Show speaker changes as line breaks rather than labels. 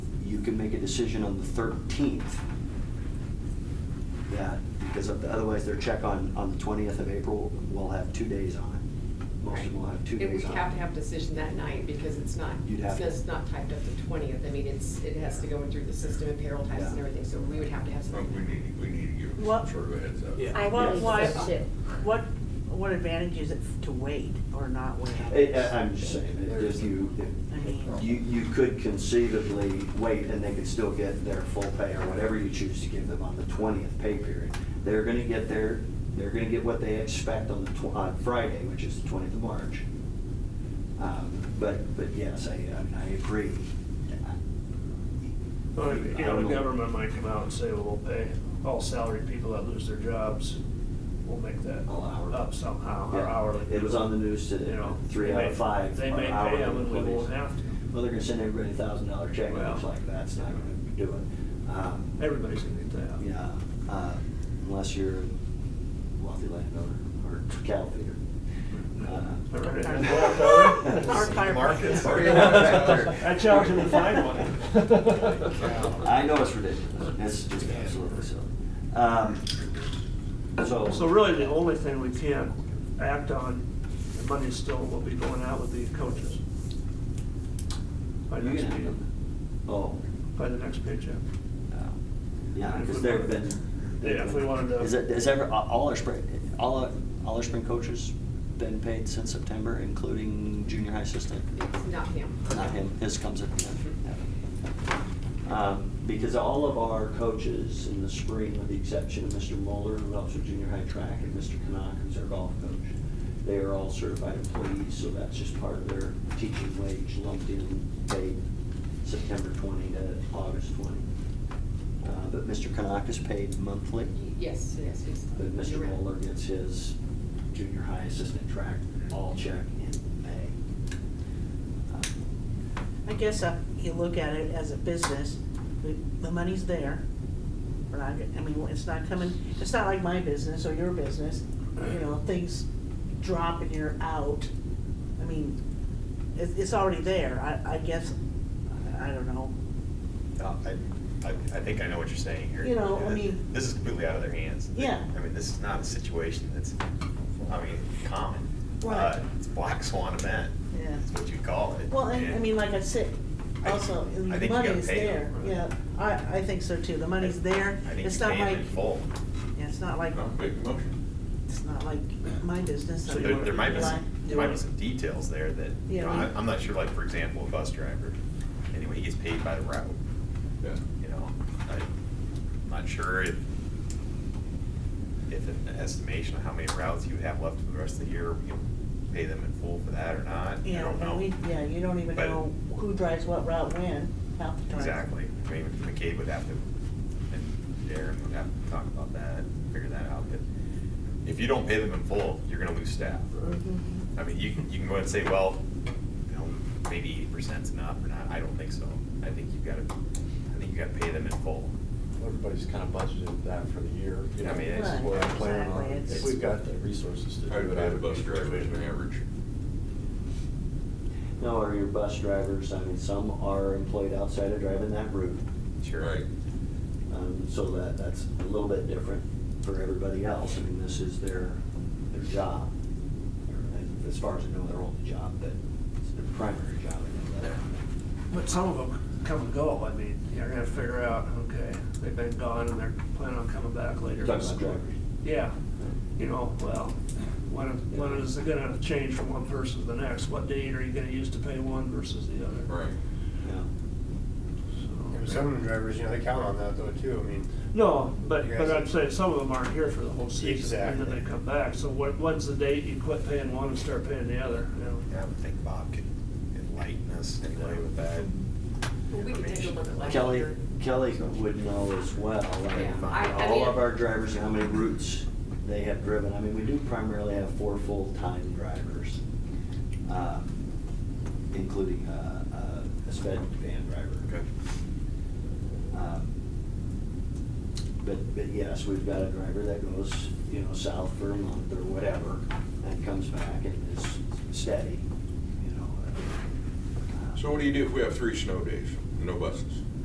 you could make a decision on the 13th. That, because otherwise their check on, on the 20th of April will have two days on it. Most of them will have two
It
days on
would
it.
have to have decision that night because it's not,
You'd have
it's
to.
just not typed up the twentieth. I mean, it's, it has to go in through the system and payroll taxes and
Yeah.
everything, so we would have to have
Well, Oh, we
something.
need, we need to give them some
What-
sort of a heads up.
Yeah.
I
What-
want,
what-
what, what, what advantage is it to wait or not wait?
It- uh, I- I'm just saying, that if you,
I mean-
if you, you could conceivably wait and they could still get their full pay or whatever you choose to give them on the twentieth pay period. They're gonna get their, they're gonna get what they expect on the tw- on Friday, which is the twentieth of March. Um, But, but yes, I, I mean, I agree.
Well, you know, the government might come out and say, well, we'll pay all salaried people that lose their jobs, we'll make that
All hourly.
up somehow, or
Yeah.
hourly.
It was on the news
You
today,
know,
three
they
out
may-
of five.
They may
are
pay
hourly
them and we
employees.
won't have to.
Well, they're gonna send everybody a thousand dollar check, and
Well.
it's like, that's not gonna do it. Um,
Everybody's gonna get that.
Yeah, uh, unless you're a wealthy landowner or cattle feeder.
I
Uh,
read it.
Our fire-
Markets.
I challenge him to find one.
I know it's ridiculous, it's just absolutely silly. Um,
So really, the only thing we can act on, the money still will be going out with the coaches. By
You
next
can have
meeting,
them. Oh,
by the next paycheck.
yeah, because there've been.
Yeah, if we wanted to-
Is it, is ever, all our spring, all, our- all our spring coaches been paid since September, including junior high assistant?
It's not him.
Not him, his comes at the end. Um, Because all of our coaches in the spring, with the exception of Mr. Muller, who helps with junior high track, and Mr. Kanak, who's our golf coach, they are all certified employees, so that's just part of their teaching wage lumped in, paid September twenty to August twenty. Uh, But Mr. Kanak is paid monthly,
Yes, yes, yes.
but
You're
Mr.
right.
Muller gets his junior high assistant track all check in May. Um,
I guess uh, you look at it as a business, the, the money's there. We're not, I mean, it's not coming, it's not like my business or your business, you know, things drop and you're out. I mean, it's, it's already there, I, I guess, I don't know.
Uh, I, I I think I know what you're saying here.
You know, I mean-
This is completely out of their hands.
Yeah.
I mean, this is not a situation that's, I mean, common.
Right.
Uh, It's black swan event.
Yeah.
That's what you call it.
Well, and, I mean, like I said,
I-
also,
I
the
think you gotta
money's
pay
there,
them.
yeah, I, I think so too, the money's there,
I think
it's
you
not
pay them
like,
in full.
yeah, it's not like,
No, Make the motion.
it's not like my business. I
So there,
mean,
there might be some,
like-
there might be some details there that, you
Yeah,
know,
we-
I'm, I'm not sure, like, for example, a bus driver, anyway, he gets paid by the route,
Yeah.
you know? I'm not sure if, if an estimation of how many routes you would have left for the rest of the year, you know, pay them in full for that or not, I
Yeah,
don't know.
and we, yeah, you don't even
But-
know who drives what route when, half the time.
Exactly, I mean, McCabe would have to, and Darren would have to talk about that, figure that out, but if you don't pay them in full, you're gonna lose staff.
Mhm.
I mean, you can, you can go ahead and say, well, you know, maybe eighty percent's enough or not, I don't think so. I think you've gotta, I think you gotta pay them in full.
Everybody's kind of budgeted that for the year. you know,
I mean,
this is
it's-
what I'm planning on,
Exactly, it's-
if we've got the resources to do
I would
it.
pay the bus driver an average.
No, or your bus drivers, I mean, some are employed outside of driving that route,
Sure.
Right.
um, so that, that's a little bit different for everybody else, I mean, this is their, their job. And As far as I know, their only job, but it's their primary job, I know that.
But some of them come and go, I mean, you're gonna figure out, okay, they've been gone and they're planning on coming back later.
You're talking about drivers.
Yeah, you know, well, when, when is it gonna change from one person to the next? What date are you gonna use to pay one versus the other?
Right.
Yeah.
And
So-
Some of them drivers, you know, they count on that though too, I mean,
No, but,
You
but
guys-
I'd say some of them aren't here for the whole season, and then they
Exactly.
come back, so what, when's the date you quit paying one and start paying the other, you know?
Yeah, I would think Bob could enlighten us anyway with that.
Well, we can take a look at that.
Kelly,
later.
Kelly would know as well, I mean,
Yeah, I- I
all
mean-
of our drivers, and how many routes they have driven, I mean, we do primarily have four full-time drivers, um, including, uh, uh, a sped van driver.
Okay.
Um, But, but yes, we've got a driver that goes, you know, south for a month or whatever, and comes back and is steady, you know. uh,
So what do you do if we have three snow days, no buses?